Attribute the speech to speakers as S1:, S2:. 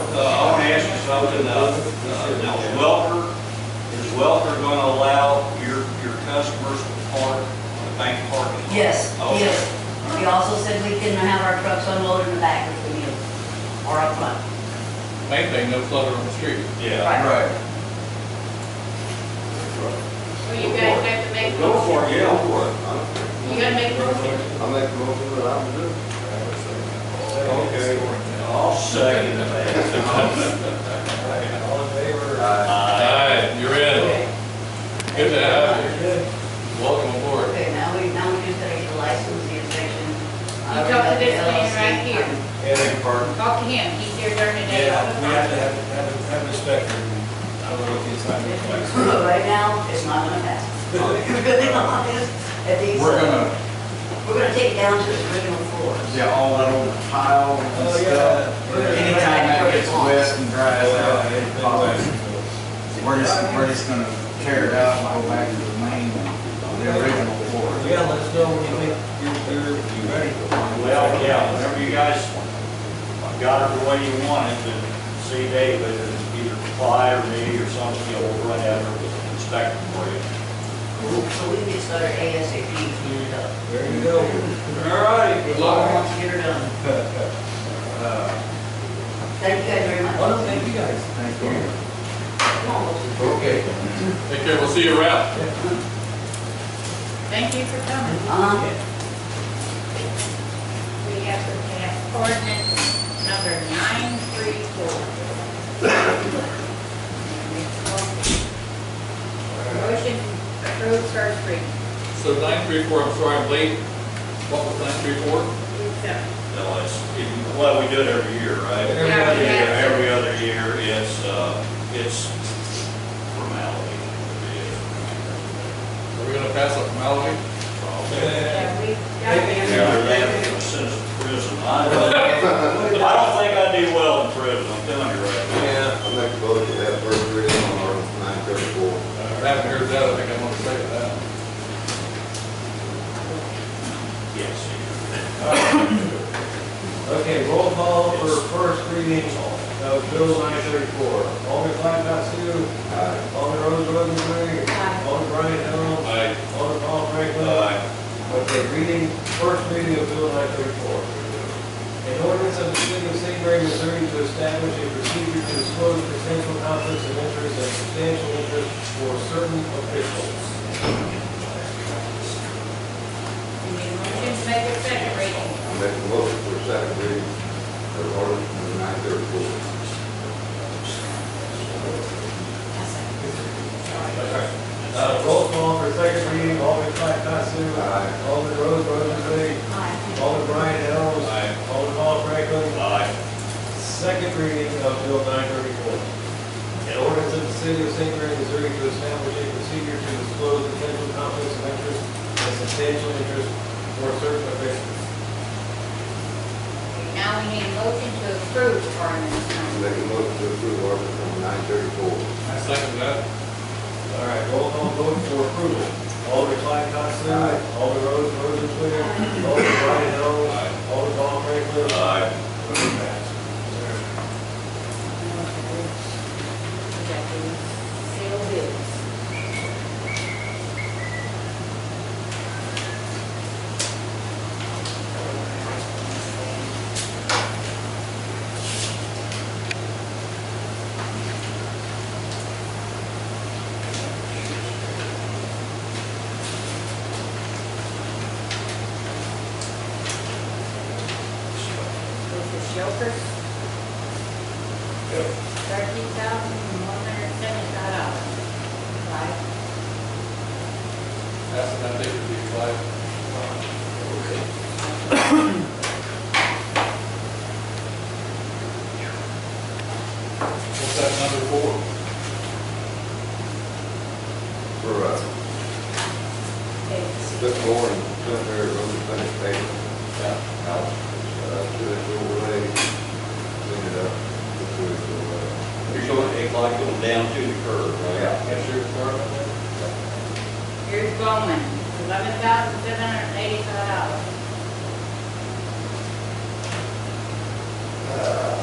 S1: Uh, spoke to the, uh, now is Welker, is Welker going to allow your, your customers to park on the bank parking lot? Oh,
S2: Yes,
S3: Oh.
S1: Okay.
S2: yes. We also said we can have our trucks unloaded in the back if we need, them, or up front.
S4: Main thing, no clutter on the street.
S1: Yeah.
S2: Right.
S3: Right.
S5: Well, you guys have to make.
S3: Go for it, yeah,
S1: Go
S3: go for it.
S5: You gotta make a motion.
S3: I make a motion, but I'm good.
S1: Okay, I'll second that.
S6: All in favor?
S4: Uh,
S3: Aye.
S4: Aye, you're
S3: Oh.
S4: in.
S2: Okay,
S4: Good to have you. Welcome aboard.
S2: Okay. now we, now we just gotta get the license, the inspection.
S5: You talk to this man right here.
S6: And,
S5: Talk to him, he's here during the day all
S6: yeah,
S5: the
S6: we have to
S5: time.
S6: have, have, have respect. for- I don't know if it's not respect.
S2: Right now, it's not gonna pass. We're gonna be honest, at these,
S3: We're
S2: uh,
S3: gonna,
S2: we're gonna take it down to its original floors.
S3: yeah, all that old tile and
S6: Oh, yeah.
S3: stuff.
S6: Yeah.
S3: Anytime that gets wet and dries out, it follows.
S6: Well,
S3: We're just, we're just gonna tear it out and go back to the main, the original floor.
S6: Yeah, let us know when you think you're, you're, you're ready.
S1: Well, yeah, whenever you guys got it the way you want it, then see David, and either reply or me or somebody, will run out there with an inspector for you.
S2: So we can start ASAP if needed up.
S6: There you go.
S1: All righty.
S2: If you want to get her done.
S3: Uh,
S2: Thank you guys very much.
S6: Well, no, thank you guys.
S3: thank you.
S2: Come on, let's-
S3: Okay.
S4: Take care, we'll see you around.
S5: Thank you for coming.
S2: Uh-huh.
S5: We have to pass ordinance number nine three four. Motion approved first reading.
S4: So nine three four, I'm sorry I'm late. What was nine three four?
S5: So,
S1: No, it's, it- well, we do it every year, right?
S6: Every
S1: Yeah,
S6: other
S5: year.
S1: Every other year, it's, uh, it's formality. It
S4: Are we gonna pass up formality?
S1: is.
S5: yeah, we got
S1: Yeah,
S5: it.
S1: they have to send us to prison. I don't think I do well in prison, I'm telling you right
S3: Yeah.
S7: I make a motion to have first reading on ordinance nine thirty-four.
S4: Uh, I haven't heard that, I think I want to say that.
S1: now. Yes.
S6: Okay, roll call for first reading of Bill nine thirty-four. Alderman Clyde Batsu,
S7: Aye.
S6: Alderman Rose Rosenberg,
S5: Aye.
S6: Alderman Brian Hill,
S4: Aye.
S6: Alderman Paul Franklin.
S1: Uh,
S6: Okay, reading, first reading of Bill nine thirty-four. An ordinance of the city of St. Mary, Missouri to establish a procedure to disclose potential conflicts of interest and substantial interest for certain officials.
S5: We need a motion to make a second reading.
S7: I make a motion for second reading of ordinance nine thirty-four.
S6: Uh, roll call for second reading, Alderman Clyde Batsu,
S7: Aye.
S6: Alderman Rose Rosenberg, Alderman Brian Helms. Alderman Paul Franklin.
S1: aye.
S6: Second reading of Bill 934. An ordinance of the city of St. Mary, Missouri to establish a procedure to disclose potential conflicts of interest and substantial interest for certain officials.
S5: Now we need a motion to approve ordinance
S7: I
S5: number.
S7: make a motion to approve ordinance number nine thirty-four.
S4: I second that.
S6: All right, roll call vote for approval. Alderman Clyde Costello.
S7: Aye.
S6: Alderman Rose Rosensweig. Alderman Brian Helms. Alderman Paul Franklin.
S1: Aye.
S6: Motion passed.
S5: Sale bids. This is Jokers. Thirteen thousand one hundred seventy-five dollars. Five.
S4: Pass it, I think it'd be five. What's that number four?
S7: For, uh, Cliff Moore and Senator Rosen finished paving. Uh, to the overlay, clean it up. to the overlay.
S1: You're going to act like going down to the curb, right?
S4: That's your department?
S5: Here's Bowman, eleven thousand seven hundred eighty-five dollars.
S7: Uh,